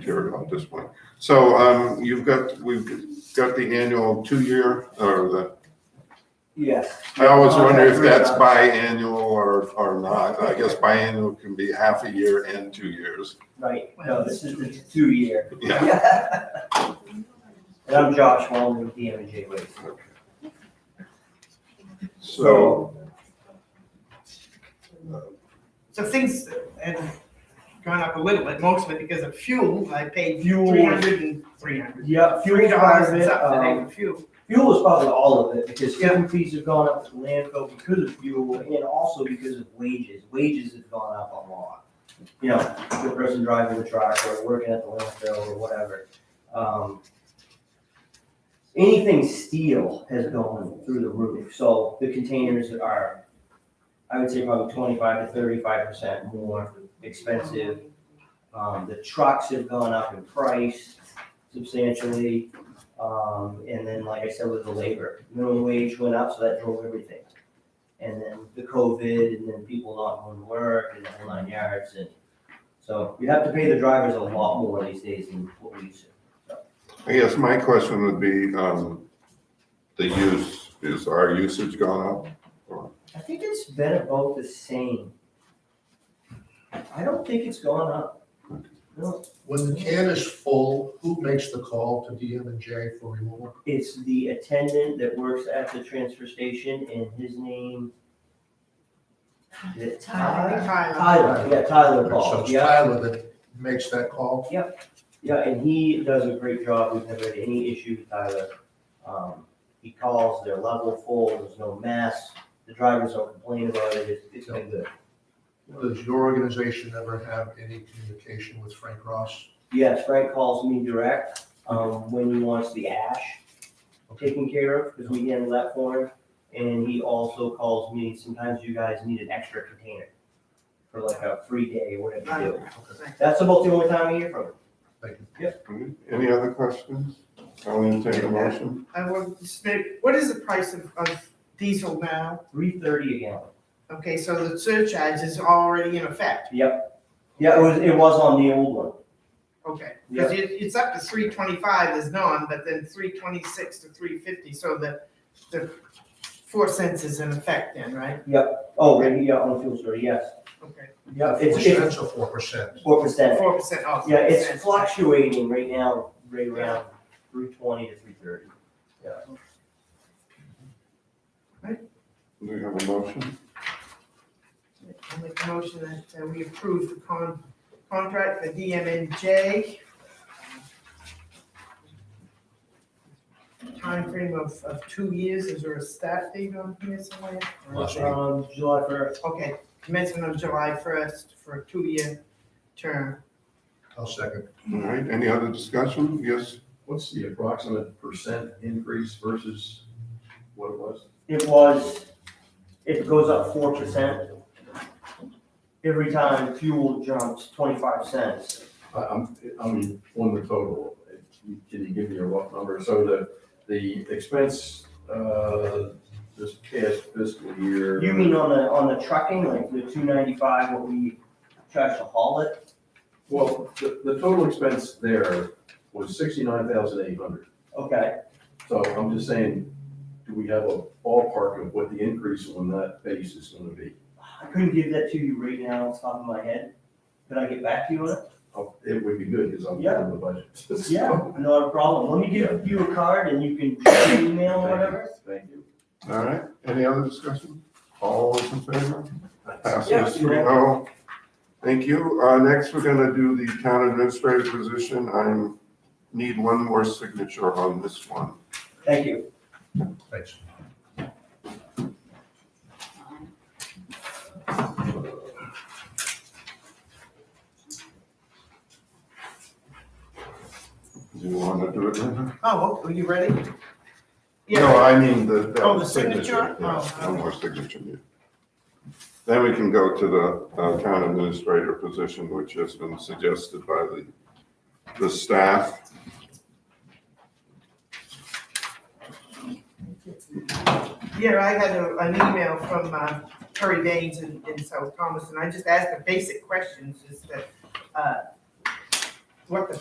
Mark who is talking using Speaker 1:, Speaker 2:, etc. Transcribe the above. Speaker 1: care about at this point. So, um, you've got, we've got the annual two-year, or the,
Speaker 2: Yes.
Speaker 1: I always wonder if that's biannual or, or not. I guess biannual can be half a year and two years.
Speaker 2: Right, no, this is the two-year.
Speaker 1: Yeah.
Speaker 2: And I'm Josh Wellman with DMJ Waste.
Speaker 1: So,
Speaker 3: So things had gone up a little bit, mostly because of fuel. I paid
Speaker 2: Fuel.
Speaker 3: three hundred and three hundred.
Speaker 2: Yeah,
Speaker 3: Three
Speaker 2: fuel's part
Speaker 3: dollars
Speaker 2: of
Speaker 3: and
Speaker 2: it,
Speaker 3: something
Speaker 2: um,
Speaker 3: for fuel.
Speaker 2: fuel is probably all of it, because fuel fees have gone up to landfill because of fuel, and also because of wages, wages have gone up a lot. You know, the person driving the truck, or working at the landfill, or whatever. Um, Anything steel has gone through the roof, so the containers are, I would say probably twenty-five to thirty-five percent more expensive. Um, the trucks have gone up in price substantially. Um, and then, like I said, with the labor, minimum wage went up, so that drove everything. And then the COVID, and then people not going to work, and the whole nine yards, and so you have to pay the drivers a lot more these days than what we used to.
Speaker 1: I guess my question would be, um, the use, is our usage gone up?
Speaker 2: I think it's been about the same. I don't think it's gone up. No,
Speaker 4: When the can is full, who makes the call to DM and J for removal?
Speaker 2: it's the attendant that works at the transfer station, and his name. is it Tyler?
Speaker 3: Tyler.
Speaker 2: Tyler, yeah, Tyler
Speaker 4: So
Speaker 2: Ball,
Speaker 4: it's
Speaker 2: yeah.
Speaker 4: Tyler that makes that call.
Speaker 2: Yeah, and he does a great job. We've never had any issue with Tyler. Um, he calls, they're level full, there's no mess. The drivers don't complain about it. It's, it's been good.
Speaker 4: Does your organization ever have any communication with Frank Ross?
Speaker 2: Yes, Frank calls me direct, um, when he wants the ash taken care of, because we handle that for him. And he also calls me, sometimes you guys need an extra container for like a free day or whatever you do. That's about the only time I hear from him.
Speaker 1: Any other questions? I'll entertain a motion.
Speaker 3: I would just make- what is the price of, of diesel now?
Speaker 2: Three thirty a gallon.
Speaker 3: Okay, so the surcharge is already in effect.
Speaker 2: Yeah, it was, it was on the old one.
Speaker 3: Okay, because it, it's up to three twenty-five is none, but then three twenty-six to three fifty, so the, the four cents is in effect then, right?
Speaker 2: Oh, yeah, yeah, on the fuel store, yes.
Speaker 3: Okay,
Speaker 2: Yeah,
Speaker 4: Four
Speaker 2: it's, it's
Speaker 4: cents or four percent?
Speaker 2: Four percent.
Speaker 3: four percent off.
Speaker 2: Yeah, it's
Speaker 3: 4%.
Speaker 2: fluctuating right now, right around three twenty to three thirty.
Speaker 1: Do we have a motion?
Speaker 3: I make a motion that uh, we approve the con, contract for DMNJ. Timeframe of, of two years, is there a start date on here somewhere?
Speaker 4: Last week.
Speaker 2: Um, July first.
Speaker 3: Okay, commencement of July first for a two-year term.
Speaker 4: I'll second.
Speaker 1: All right, any other discussion? Yes,
Speaker 5: What's the approximate percent increase versus what it was?
Speaker 2: It was, it goes up four percent. Every time fuel jumps twenty-five cents.
Speaker 5: I- I'm, I'm on the total. Can you give me a rough number? So the, the expense, uh, this past fiscal year.
Speaker 2: You mean on the, on the trucking, like the two ninety-five, what we charge to haul it?
Speaker 5: Well, the, the total expense there was sixty-nine thousand eight hundred.
Speaker 2: Okay,
Speaker 5: So I'm just saying, do we have a ballpark of what the increase on that base is gonna be?
Speaker 2: I couldn't give that to you right now off the top of my head. Could I get back to you on it?
Speaker 5: Oh, It would be good, because I'm
Speaker 2: Yeah.
Speaker 5: on the budget.
Speaker 2: Yeah, not a problem. Let me give you a card and you can email or whatever.
Speaker 5: Thank you.
Speaker 1: all right, any other discussion? All those in favor?
Speaker 2: Yeah.
Speaker 1: Passes three oh. Thank you. Uh, next, we're gonna do the town administrative position. I need one more signature on this one.
Speaker 2: Thank you.
Speaker 4: Thanks.
Speaker 1: Do you wanna do it? Linda?
Speaker 3: Oh, are you ready?
Speaker 1: No, I mean the. that
Speaker 3: Oh, the signature?
Speaker 1: Yeah,
Speaker 3: Oh,
Speaker 1: One more signature. yeah. Then we can go to the uh, town administrator position, which has been suggested by the, the staff.
Speaker 3: Yeah, I had a, an email from, uh, Terry Baines in, in South Thomas, and I just asked the basic questions, is that, uh, what the